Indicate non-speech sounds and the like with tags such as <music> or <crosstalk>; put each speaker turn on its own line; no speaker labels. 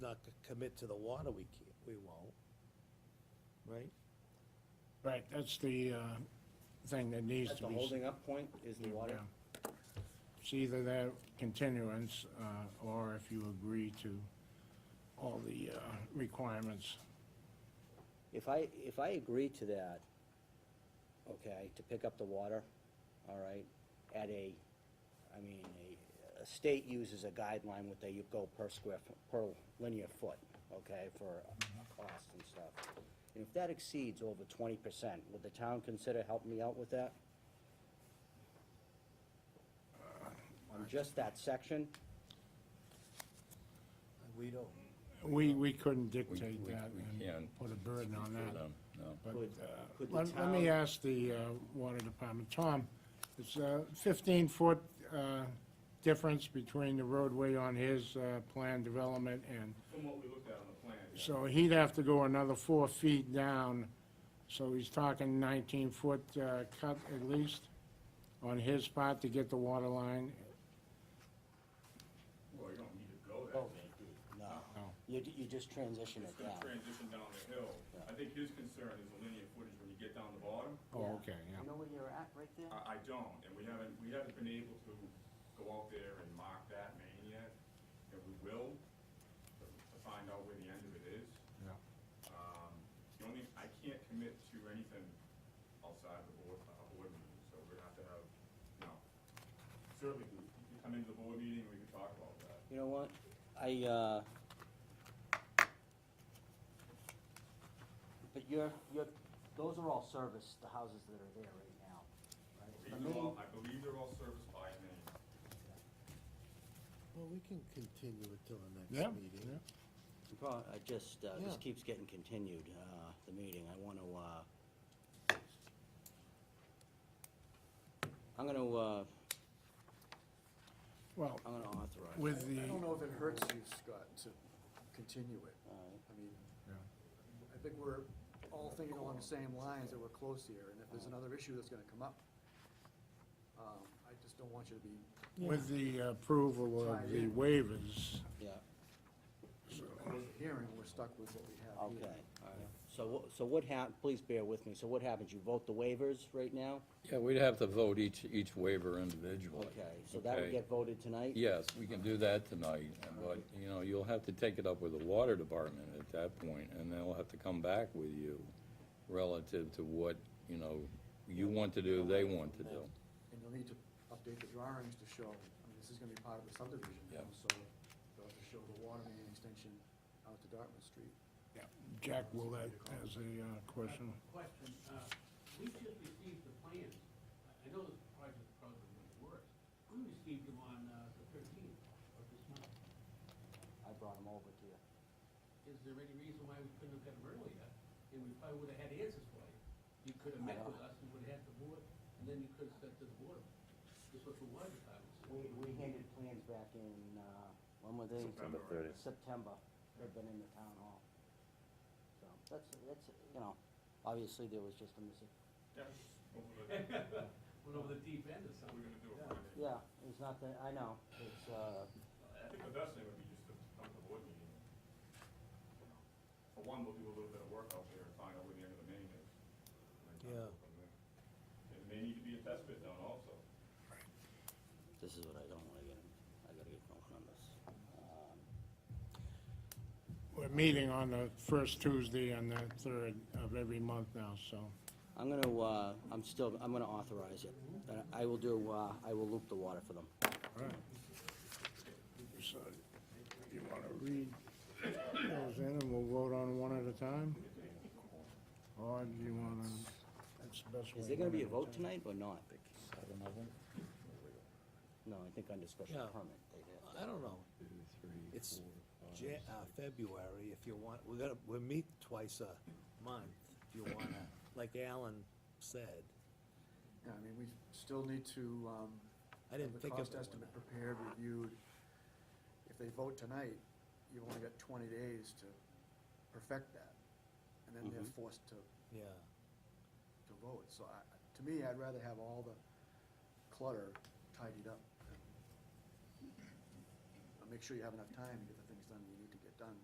c- commit to the water, we can't, we won't. Right?
Right, that's the uh, thing that needs
That's
to
the
be. s-
holding up point, is the water?
yeah. It's either that continuance, uh, or if you agree to all the uh, requirements.
If I, if I agree to that, okay, to pick up the water, all right, at a, I mean, a, a state uses a guideline what they go per square, fo- per linear foot, okay, for a cost and stuff. And if that exceeds over twenty percent, would the town consider helping me out with that? On just that section?
We don't.
We, we couldn't
We-
dictate
we-
that
we
and
can't um,
put a burden on
speak for
that.
them, No.
But
Could-
uh,
could the
let let me
town-
ask the uh, water department, Tom, it's a 15-foot difference between the roadway on his uh, planned development and,
From what we looked at on the plan, yeah.
so he'd have to go another four feet down, so he's talking 19-foot cut at least on his part to get the water line.
well, you don't need to go
Oh,
that deep.
No.
No.
You, you just transition
It's
it
gonna
down.
transition down the hill. I think his concern is the linear footage when you get down the bottom.
Oh, okay, yeah.
know where you're at right there?
I, I don't, and we haven't, we haven't been able to go out there and mark that main yet, and we will, to to find out where the end of it is.
Yeah.
Um, the only, I can't commit to anything outside the board, a board meeting, so we're gonna have to have, you know, certainly, you can come into the board meeting, we can talk about that.
You know what, I, uh, but you're, you're, those are all service, the houses that are there right now, right? The
These are
main,
all- I believe they're all serviced by name.
Well, we can continue it till the
Yeah,
next meeting.
yeah.
the pro- I just, uh, this
Yeah.
keeps getting continued, uh, the meeting, I wanna, uh, I'm gonna, uh,
Well,
I'm gonna authorize.
with the,
I don't know if it hurts you, Scott, to continue it.
Alright.
I mean,
Yeah.
I think we're all thinking along the same lines, that we're close here, and if there's another issue that's gonna come up, um, I just don't want you to be,
with the approval of the waivers,
Yeah.
close the hearing, we're stuck with what we have
Okay,
here.
all right. So, wha- so what hap, please bear with me, so what happens, you vote the waivers right now?
Yeah, we'd have to vote each, each waiver individually.
Okay, so that would
Okay.
get voted tonight?
Yes, we can do that tonight, and but, you know, you'll have to take it up with the water department at that point, and they'll have to come back with you relative to what, you know, you want to do, they want to do.
And you'll need to update the drawings to show, I mean, this is gonna be part of the subdivision now,
Yeah.
so you'll have to show the water main extension out to Dartmouth Street.
Jack Willett has a uh, question.
Question, uh, we just received the plans. I- I know this project probably went worse. We received them on uh, the thirteenth of this month.
I brought them over to you.
Is there any reason why we couldn't have got them earlier? And we probably would have had answers for you. You could have met with us, you would have had the board, and then you could have said to the board, this was the water department.
We, we handed plans back in, uh, when were they?
September, right?
September, they've been in the town hall. So, that's, that's, you know, obviously there was just a missing,
Yeah, over the-
<laughs> Went over the deep end or
we're
something.
gonna do it Friday.
yeah, it's not that, I know, it's, uh,
I think the best thing would be just to come to the board meeting. You know, For one, we'll do a little bit of work out there and find out where the end of the main is. and then
Yeah.
go from there. It may need to be a test bit done also.
this is what I don't wanna get, in. I gotta get going on this. Um,
We're meeting on the first Tuesday and the third of every month now, so.
I'm gonna, uh, I'm still, I'm gonna authorize it, but I will do, uh, I will loop the water for them.
So, You want to read those in and we'll vote on one at a time? Or do you want to, that's the best way.
Is there gonna be a
one
vote tonight or not?
Seven of them?
No, I think under special
Yeah.
permit, they'd have.
I don't know. It's Ja- uh, February, if you want, we're gonna, we'll meet twice a month, if you wanna, like Alan said.
Yeah, I mean, we still need to, um,
I didn't
have
think of
The cost
it when
estimate
I-
prepared, reviewed. If they vote tonight, you've only got twenty days to perfect that, and then they're forced to,
Yeah,
to vote. So I, to me, I'd rather have all the clutter tidied up. and Make sure you have enough time to get the things done you need to get done